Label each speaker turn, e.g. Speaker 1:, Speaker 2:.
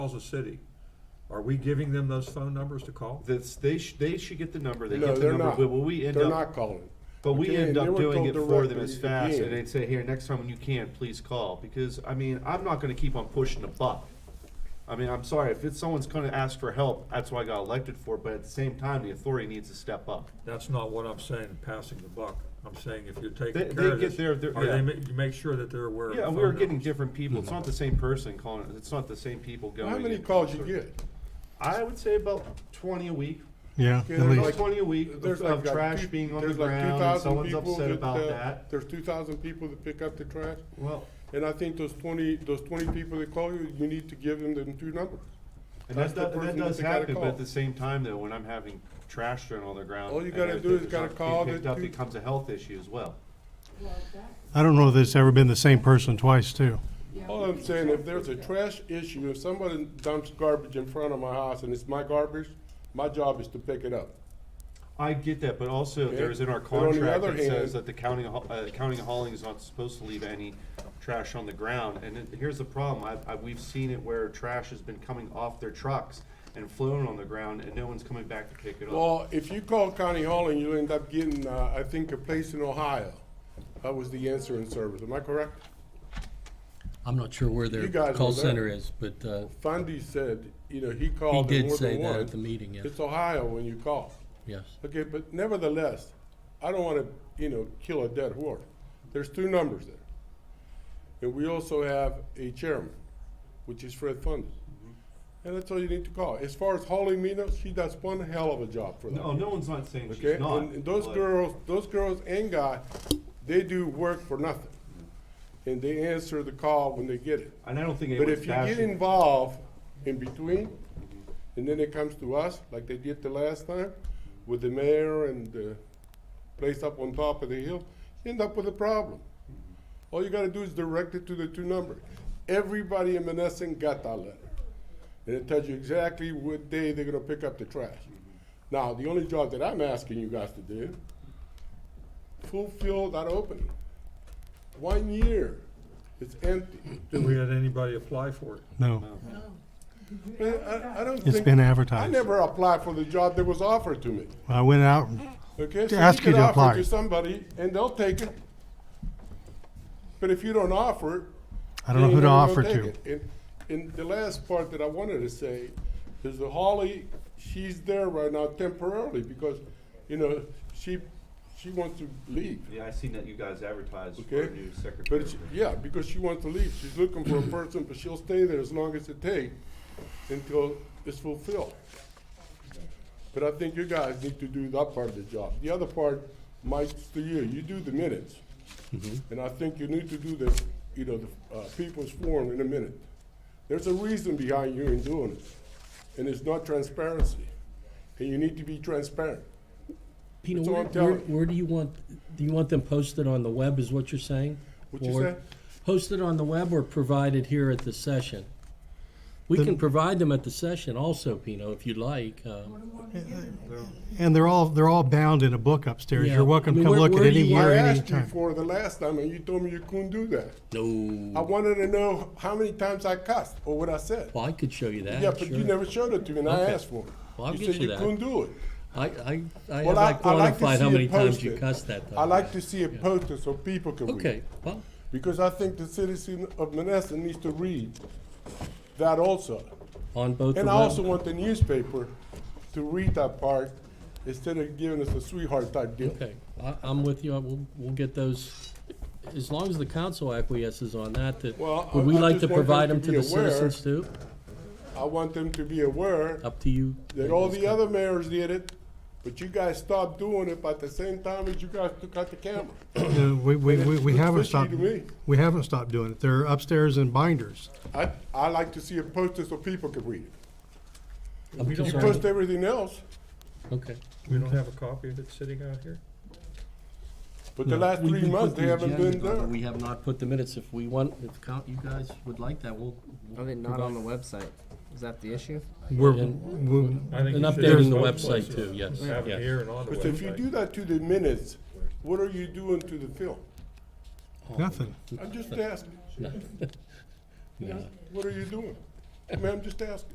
Speaker 1: calls the city, are we giving them those phone numbers to call?
Speaker 2: That's, they, sh- they should get the number, they
Speaker 3: No,
Speaker 2: get the
Speaker 3: they're
Speaker 2: number,
Speaker 3: not.
Speaker 2: but we end
Speaker 3: They're
Speaker 2: up,
Speaker 3: not calling.
Speaker 2: but we
Speaker 3: Okay,
Speaker 2: end
Speaker 3: and they
Speaker 2: up
Speaker 3: were
Speaker 2: doing
Speaker 3: told
Speaker 2: it for them
Speaker 3: directly
Speaker 2: as fast,
Speaker 3: again.
Speaker 2: and they'd say, here, next time when you can, please call, because, I mean, I'm not gonna keep on pushing a buck. I mean, I'm sorry, if it's someone's gonna ask for help, that's what I got elected for, but at the same time, the authority needs to step up.
Speaker 1: That's not what I'm saying, passing the buck. I'm saying if you're
Speaker 2: They-
Speaker 1: taking
Speaker 2: they
Speaker 1: care of
Speaker 2: get
Speaker 1: this,
Speaker 2: their- their-
Speaker 1: are they,
Speaker 2: yeah.
Speaker 1: ma- you make sure that they're aware of the
Speaker 2: Yeah,
Speaker 1: phone
Speaker 2: we were getting
Speaker 1: numbers.
Speaker 2: different people, it's not the same person calling, it. it's not the same people going.
Speaker 3: How many
Speaker 2: and-
Speaker 3: calls you get?
Speaker 2: I would say about twenty a week,
Speaker 4: Yeah,
Speaker 3: Okay,
Speaker 4: at
Speaker 3: they're
Speaker 2: Like
Speaker 3: Like,
Speaker 4: least.
Speaker 2: twenty a week of-
Speaker 3: There's
Speaker 2: of
Speaker 3: like a
Speaker 2: trash
Speaker 3: two-
Speaker 2: being on the
Speaker 3: there's like
Speaker 2: ground, and
Speaker 3: 2,000
Speaker 2: someone's
Speaker 3: people
Speaker 2: upset about
Speaker 3: uh,
Speaker 2: that.
Speaker 3: There's two thousand people that pick up the trash,
Speaker 2: Well,
Speaker 3: and I think those twenty, those twenty people that call you, you need to give them the two numbers.
Speaker 2: and that,
Speaker 3: That's the
Speaker 2: do- and that
Speaker 3: person that
Speaker 2: does
Speaker 3: they gotta
Speaker 2: happen, but
Speaker 3: call.
Speaker 2: at the same time though, when I'm having trash thrown on the ground.
Speaker 3: All you
Speaker 2: and
Speaker 3: gotta
Speaker 2: everything
Speaker 3: do is
Speaker 2: that's
Speaker 3: gotta
Speaker 2: not being
Speaker 3: call the
Speaker 2: Picked up,
Speaker 3: two-
Speaker 2: becomes a health issue as well.
Speaker 4: I don't know if it's ever been the same person twice, too.
Speaker 3: All I'm saying, if there's a trash issue, if somebody dumps garbage in front of my house and it's my garbage, my job is to pick it up.
Speaker 2: I get that, but also
Speaker 3: Okay.
Speaker 2: there is in our
Speaker 3: But on the
Speaker 2: contract
Speaker 3: other
Speaker 2: that says
Speaker 3: hand-
Speaker 2: that the county, of Ho- uh, county of hauling is not supposed to leave any trash on the ground. And it- here's the problem, I, I, we've seen it where trash has been coming off their trucks and flown on the ground and no one's coming back to pick it up.
Speaker 3: Well, if you call County Hall and you'll end up getting, uh, I think, a place in Ohio. That was the answering service, am I correct?
Speaker 5: I'm not sure where
Speaker 3: You
Speaker 5: their
Speaker 3: guys
Speaker 5: call
Speaker 3: were there.
Speaker 5: center is, but uh,
Speaker 3: Fundy said, you know, he
Speaker 5: he
Speaker 3: called them
Speaker 5: did
Speaker 3: more
Speaker 5: say
Speaker 3: than
Speaker 5: that at the
Speaker 3: once.
Speaker 5: meeting, yes,
Speaker 3: It's Ohio when you call.
Speaker 5: yes.
Speaker 3: Okay, but nevertheless, I don't wanna, you know, kill a dead horse. There's two numbers there. And we also have a chairman, which is Fred Fundy. And that's all you need to call. As far as Holly Mina, she does one hell of a job for that.
Speaker 2: oh, No, no one's not saying
Speaker 3: Okay,
Speaker 2: she's not.
Speaker 3: and and those
Speaker 2: but-
Speaker 3: girls, those girls and guy, they do work for nothing. And they answer the call when they get it.
Speaker 2: And I don't think
Speaker 3: But
Speaker 2: anyone's
Speaker 3: if you get
Speaker 2: bashing.
Speaker 3: involved in between, and then it comes to us, like they did the last time, with the mayor and the place up on top of the hill, you end up with a problem. All you gotta do is direct it to the two numbers. Everybody in Menneson got that letter. And it tells you exactly what day they're gonna pick up the trash. Now, the only job that I'm asking you guys to do, fulfill that opening. One year, it's empty.
Speaker 1: Did we had anybody apply for it?
Speaker 4: No,
Speaker 3: Man, I, I don't
Speaker 4: it's
Speaker 3: think-
Speaker 4: been
Speaker 3: I
Speaker 4: advertised.
Speaker 3: never applied for the job that was offered to me.
Speaker 4: I went out,
Speaker 3: Okay,
Speaker 4: To
Speaker 3: so
Speaker 4: ask
Speaker 3: you
Speaker 4: you
Speaker 3: can
Speaker 4: to
Speaker 3: offer
Speaker 4: apply.
Speaker 3: it to somebody and they'll take it. But if you don't offer it,
Speaker 4: I don't know
Speaker 3: they
Speaker 4: who to
Speaker 3: ain't
Speaker 4: offer
Speaker 3: never gonna
Speaker 4: to.
Speaker 3: take it. And, and the last part that I wanted to say is that Holly, she's there right now temporarily because, you know, she she wants to leave.
Speaker 2: Yeah, I seen that you guys advertised for a
Speaker 3: Okay.
Speaker 2: new secretary.
Speaker 3: But she, yeah, because she wants to leave. She's looking for a person, but she'll stay there as long as it takes until it's fulfilled. But I think you guys need to do that part of the job. The other part, Mike's to you. You do the minutes. And I think you need to do the, you know, the uh, people's forum in a minute. There's a reason behind you in doing it, and it's not transparency. And you need to be transparent.
Speaker 5: Pino,
Speaker 3: That's all
Speaker 5: where,
Speaker 3: I'm telling
Speaker 5: where-
Speaker 3: you.
Speaker 5: where do you want, do you want them posted on the web, is what you're saying?
Speaker 3: What you
Speaker 5: Or
Speaker 3: said?
Speaker 5: Posted on the web or provided here at the session? We
Speaker 4: The-
Speaker 5: can provide them at the session also, Pino, if you'd like. um,
Speaker 4: And they're all, they're all bound in a book upstairs.
Speaker 5: Yeah.
Speaker 4: You're welcome
Speaker 5: I
Speaker 4: to
Speaker 5: mean,
Speaker 4: come
Speaker 5: where-
Speaker 4: look at
Speaker 5: where do
Speaker 4: any
Speaker 5: you-
Speaker 4: year,
Speaker 3: I
Speaker 4: any
Speaker 3: asked you
Speaker 4: time.
Speaker 3: for the last time, and you told me you couldn't do that. I
Speaker 5: No,
Speaker 3: wanted to know how many times I cussed or what I said.
Speaker 5: well, I could show you that,
Speaker 3: Yeah, but you
Speaker 5: sure.
Speaker 3: never showed it to me, and I
Speaker 5: Okay.
Speaker 3: asked for it.
Speaker 5: Well, I'll
Speaker 3: You
Speaker 5: get
Speaker 3: said
Speaker 5: you
Speaker 3: you
Speaker 5: that.
Speaker 3: couldn't do it.
Speaker 5: I, I, I
Speaker 3: Well,
Speaker 5: haven't
Speaker 3: I- I like to
Speaker 5: quantified how
Speaker 3: see it
Speaker 5: many times you
Speaker 3: posted.
Speaker 5: cussed that though.
Speaker 3: I like to see it posted so people can read.
Speaker 5: Okay, well,
Speaker 3: Because I think the citizen of Menneson needs to read that also.
Speaker 5: on both the
Speaker 3: And I also
Speaker 5: web,
Speaker 3: want the newspaper to read that part instead of giving us a sweetheart type deal.
Speaker 5: okay, I, I'm with you, I- we'll, we'll get those, as long as the council acquiesces on that, that,
Speaker 3: Well, I-
Speaker 5: would we
Speaker 3: I
Speaker 5: like
Speaker 3: just
Speaker 5: to
Speaker 3: want them
Speaker 5: provide
Speaker 3: to
Speaker 5: them to
Speaker 3: be
Speaker 5: the
Speaker 3: aware.
Speaker 5: citizens too?
Speaker 3: I want them to be aware
Speaker 5: Up to you.
Speaker 3: that all the other mayors did it, but you guys stopped doing it by the same time as you guys took out the camera.
Speaker 4: No, We, we, we we
Speaker 3: It's
Speaker 4: haven't
Speaker 3: fishy
Speaker 4: stopped,
Speaker 3: to me.
Speaker 4: we haven't stopped doing it. They're upstairs in binders.
Speaker 3: I, I like to see it posted so people can read it.
Speaker 5: Up to
Speaker 3: You
Speaker 5: you.
Speaker 3: post everything else,
Speaker 5: Okay.
Speaker 1: We don't have a copy of it sitting out here?
Speaker 3: but the last three months, they haven't been there.
Speaker 5: We have not put the minutes, if we want, if count, you guys would like that, we'll.
Speaker 6: Are they not on the website? Is that the issue?
Speaker 4: We're,
Speaker 5: And-
Speaker 4: we-
Speaker 1: I think
Speaker 5: And
Speaker 1: you should
Speaker 5: updating the
Speaker 1: have both
Speaker 5: website
Speaker 1: places.
Speaker 5: too, yes,
Speaker 1: Have it
Speaker 5: yes.
Speaker 1: here and on the
Speaker 3: But if you do
Speaker 1: website.
Speaker 3: that to the minutes, what are you doing to the film?
Speaker 4: nothing.
Speaker 3: I'm just asking,
Speaker 5: No.
Speaker 3: what are you doing? Ma'am, just ask.